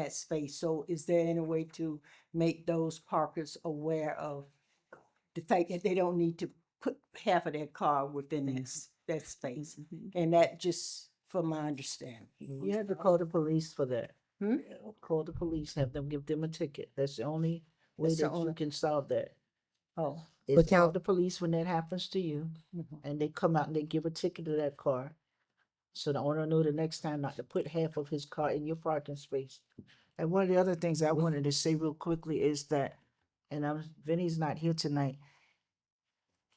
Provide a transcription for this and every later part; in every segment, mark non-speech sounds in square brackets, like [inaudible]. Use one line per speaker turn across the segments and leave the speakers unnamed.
that space. So is there any way to make those parkers aware of the fact that they don't need to put half of their car within that, s-
Mm-hmm.
that space? And that just from my understanding.
You had to call the police for that.
Hmm?
Call the police, have them give them a ticket. That's the only way
That's the
that you
only-
can solve that.
Oh.
Is
now-
call the police when that happens to you
mhm.
and they come out and they give a ticket to that car. So the owner know the next time not to put half of his car in your parking space. And one of the other things I wanted to say real quickly is that, and I'm, Vinny's not here tonight.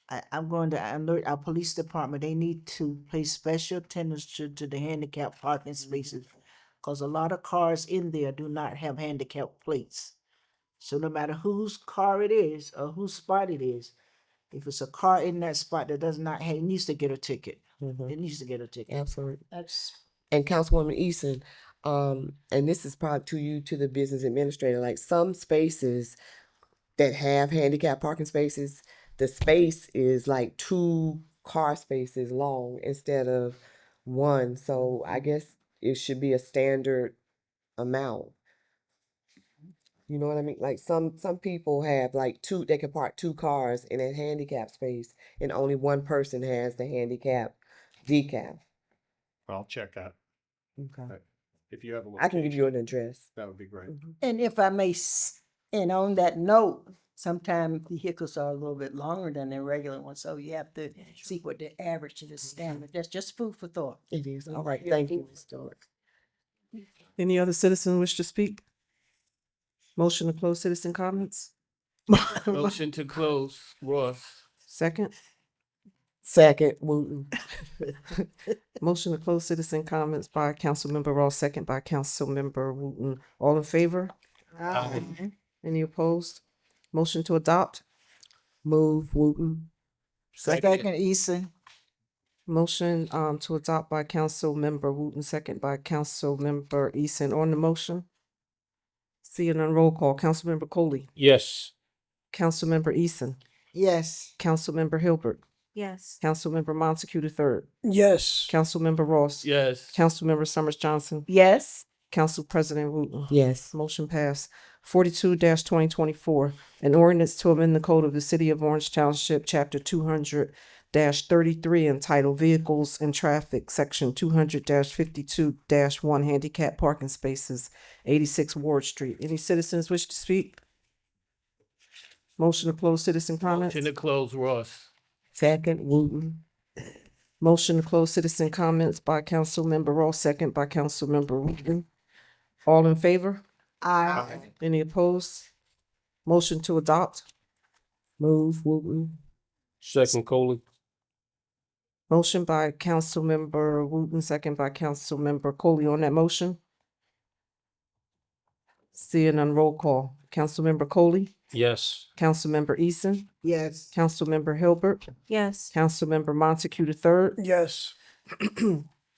I, I'm going to alert our police department, they need to pay special attention to the handicap parking spaces. Cause a lot of cars in there do not have handicap plates. So no matter whose car it is or whose spot it is, if it's a car in that spot that does not have, it needs to get a ticket. It needs to get a ticket.
Absolutely.
That's
And Councilwoman Eason, um, and this is probably to you, to the business administrator, like some spaces that have handicap parking spaces, the space is like two car spaces long instead of one. So I guess it should be a standard amount. You know what I mean? Like some some people have like two they can park two cars in a handicap space and only one person has the handicap decaf.
I'll check that.
Okay.
If you have a
I can
location,
give you an address.
that would be great.
And if I may, s- and on that note, sometimes vehicles are a little bit longer than their regular ones, so you have to see what the average is the
Mm-hmm.
standard. That's just food for thought.
It is. All right, thank you, Ms. Dorr.
Any other citizen wish to speak? Motion to close citizen comments?
Motion to close, Ross.
Second,
Second, Wooten.
motion to close citizen comments by Councilmember Ross, second by Councilmember Wooten. All in favor? Any opposed? Motion to adopt?
Move, Wooten.
second Eason.
Motion, um, to adopt by Councilmember Wooten, second by Councilmember Eason. On the motion? Seeing none, roll call. Councilmember Coley,
Yes.
Councilmember Eason,
Yes.
Councilmember Hilbert,
Yes.
Councilmember Montague the third,
Yes.
Councilmember Ross.
Yes.
Councilmember Summers Johnson,
Yes.
Council President Wooten.
Yes.
Motion passed. Forty-two twenty twenty-four, an ordinance to amend the code of the city of Orange Township, chapter two hundred thirty-three entitled Vehicles and Traffic, section two hundred fifty-two one, handicap parking spaces, eighty-six Ward Street. Any citizens wish to speak? Motion to close citizen comments?
Motion to close, Ross.
Second, Wooten.
Motion to close citizen comments by Councilmember Ross, second by Councilmember Wooten. All in favor?
I
Any opposed? Motion to adopt.
Move, Wooten.
Second, Coley.
Motion by Councilmember Wooten, second by Councilmember Coley on that motion. Seeing none, roll call. Councilmember Coley,
Yes.
Councilmember Eason,
Yes.
Councilmember Hilbert,
Yes.
Councilmember Montague the third,
Yes.
[clears throat]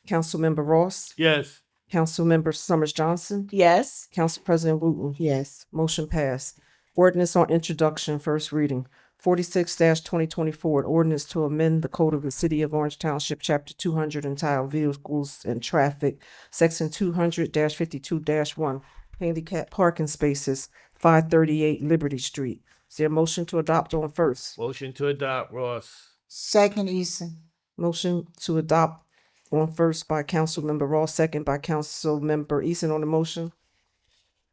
Councilmember Ross,
Yes.
Councilmember Summers Johnson,
Yes.
Council President Wooten.
Yes.
Motion passed. Ordinance on introduction, first reading. Forty-six twenty twenty-four, an ordinance to amend the code of the city of Orange Township, chapter two hundred entitled Vehicles and Traffic, section two hundred fifty-two one, handicap parking spaces, five thirty-eight Liberty Street. Is there a motion to adopt on first?
Motion to adopt, Ross.
Second Eason.
Motion to adopt on first by Councilmember Ross, second by Councilmember Eason on the motion.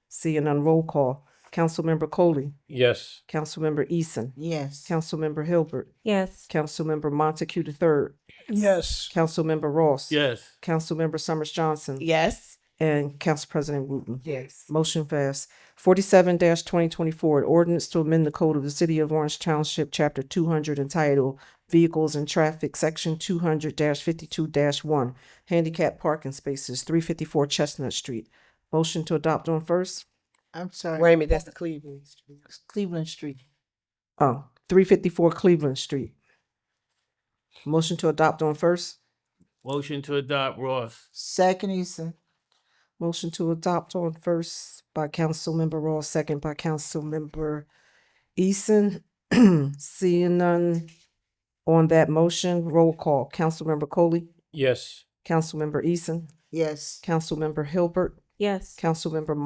Seeing none, roll call. Councilmember Coley,
Yes.
Councilmember Eason.
Yes.
Councilmember Hilbert,
Yes.
Councilmember Montague the third,
Yes.
Councilmember Ross.
Yes.
Councilmember Summers Johnson
Yes.
and Council President Wooten.
Yes.
Motion passed. Forty-seven twenty twenty-four, an ordinance to amend the code of the city of Orange Township, chapter two hundred entitled Vehicles and Traffic, section two hundred fifty-two one, handicap parking spaces, three fifty-four Chestnut Street. Motion to adopt on first?
I'm sorry.
Wait a minute, that's the Cleveland.
Cleveland Street.
Oh, three fifty-four Cleveland Street. Motion to adopt on first?
Motion to adopt, Ross.
Second Eason.
Motion to adopt on first by Councilmember Ross, second by Councilmember Eason. [clears throat] Seeing none on that motion, roll call. Councilmember Coley,
Yes.
Councilmember Eason,
Yes.
Councilmember Hilbert,
Yes.
Councilmember